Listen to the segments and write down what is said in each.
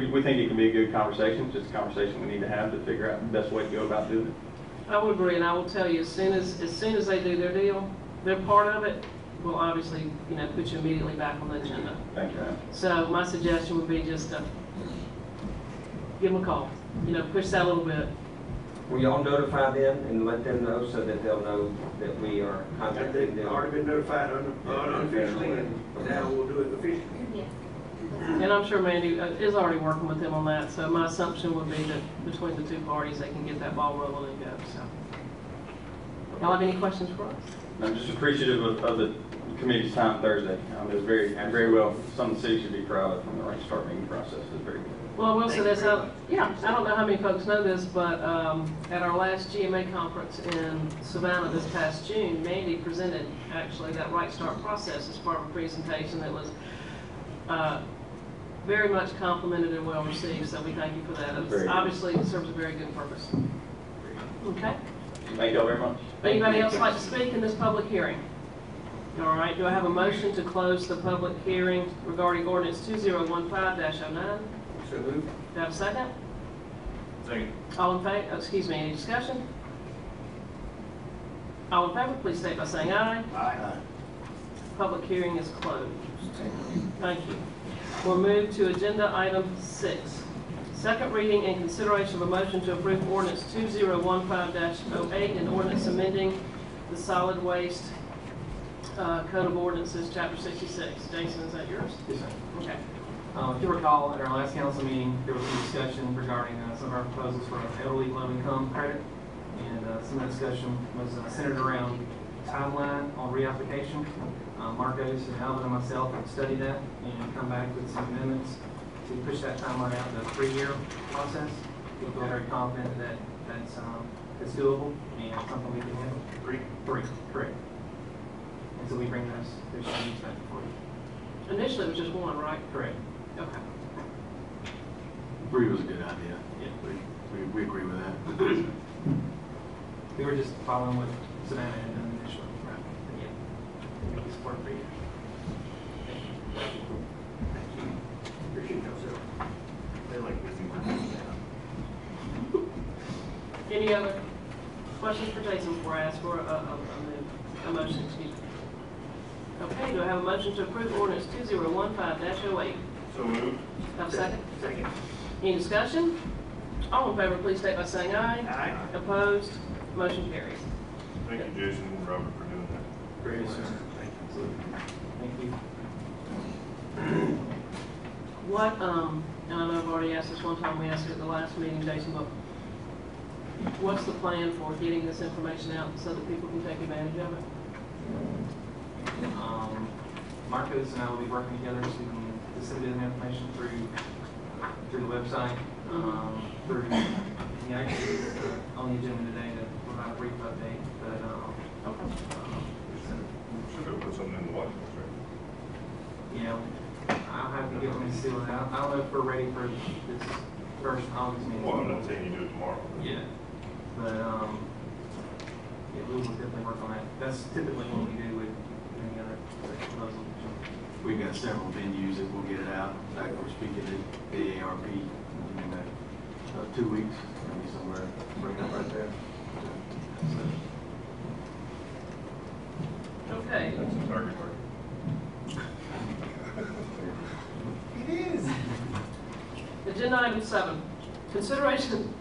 We- We think it can be a good conversation, just a conversation we need to have to figure out the best way to go about doing it. I would agree, and I will tell you, as soon as, as soon as they do their deal, they're part of it, we'll obviously, you know, put you immediately back on the agenda. Thank you, Ryan. So my suggestion would be just to give them a call, you know, push that a little bit. Will y'all notify them and let them know so that they'll know that we are And contacting They've them? already been notified un- uh, unofficially, and now we'll do it officially. And I'm sure Mandy uh, is already working with them on that, so my assumption would be that between the two parties, they can get that ball rolling and go, so. Y'all have any questions for us? I'm just appreciative of, of the committee's time Thursday. Um, it was very, very well, some of the city should be proud of from the right start meeting process, it was very good. Well, I will say Thank this, you very I- much. yeah, I don't know how many folks know this, but um, at our last GMA conference in Savannah this past June, Mandy presented actually that Right Start process as part of a presentation that was uh, very much complimented and well received, so we thank you for that. It was- Very good. Obviously, it serves a very good purpose. Okay. Thank y'all very much. Anybody else like to speak in this public hearing? All right, do I have a motion to close the public hearing regarding ordinance 2015-09? So moved. Do I have a second? Second. All in favor, oh, excuse me, any discussion? All in favor, please state by saying aye. Aye. Public hearing is closed. Thank you. We'll move to agenda item six. Second reading and consideration of a motion to approve ordinance 2015-08 and oh ordinance amending the solid waste uh, code of ordinances, chapter 66. Jason, is that yours? Yes, sir. Okay. Uh, If you recall, at our last council meeting, there was some discussion regarding uh, some of our proposals for elderly low-income credit. And uh, some of the discussion was uh, centered around timeline on reapplication. Uh, Marcos and Alvin and myself have studied that and come back with some amendments to push that timeline out to a three-year process. We feel very confident that that's, um, that's doable and something we can handle. Three? Three, correct. And so we bring those, those changes back for you. Initially, it was just one, right? Correct. Okay. Three was a good idea. Yeah. We, we, we agree with that. We were just following what Savannah had done initially. Yeah. Make it support for you. Thank you. Appreciate yourself. They like to see my Any other questions for Jason before I ask for a, a, a move, a motion, excuse me? Okay, do I have a motion to approve ordinance two zero one five dash oh eight? So moved. Have a second? Second. Any discussion? All in favor, please state by saying aye. Aye. Opposed, motion carries. Thank you, Jason and Robert, for doing that. Great, sir. Thank you. What, um, and I know I've already asked this one time, we asked it at the last meeting, Jason, but what's the plan for getting this information out so that people can take advantage of it? Um, Marcos and I will be working together to disseminate the information through, through the website, um, through, he actually is uh, on the agenda today to provide a brief update, but, um, um, so Should have put something in the watch list, right? you know, I'll have to get them to seal it out. I don't know if we're ready for this first August meeting. Well, I'm not saying you do it tomorrow. but- Yeah, but, um, yeah, we will definitely work on that. That's typically what we do with any other proposal. We've got several venues that will get it out. In fact, we're speaking at AARP in uh, uh, two weeks, maybe somewhere, right up right there. So, Okay, That's a target market. Agenda item seven, consideration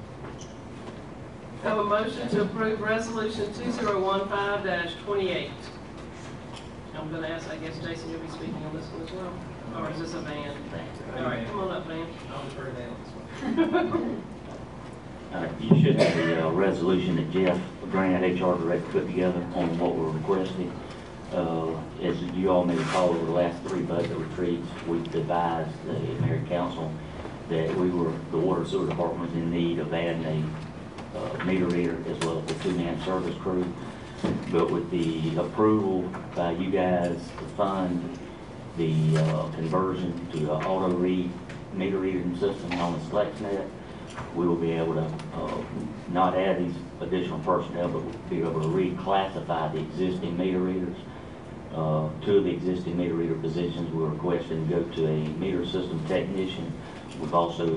of a motion to approve resolution two zero one five twenty-eight. I'm gonna ask, I guess, Jason, you'll be speaking on this one as well, or is this a van? All right, come on up, van. I'll defer to that on this one. Uh, You should have a uh, resolution that Jeff Grant, HR Director, put together on what we're requesting. Uh, As you all may recall, over the last three budget retreats, we advised the mayor and council that we were, the water and sewer department was in need of adding a uh, meter reader as well as a two-man service crew. But with the approval by you guys to fund the uh, conversion to the auto read, meter reading system known as FlexNet, we will be able to uh, not add these additional personnel, but we'll be able to reclassify the existing meter readers. Uh, Two of the existing meter reader positions we're requesting go to a meter system technician We've also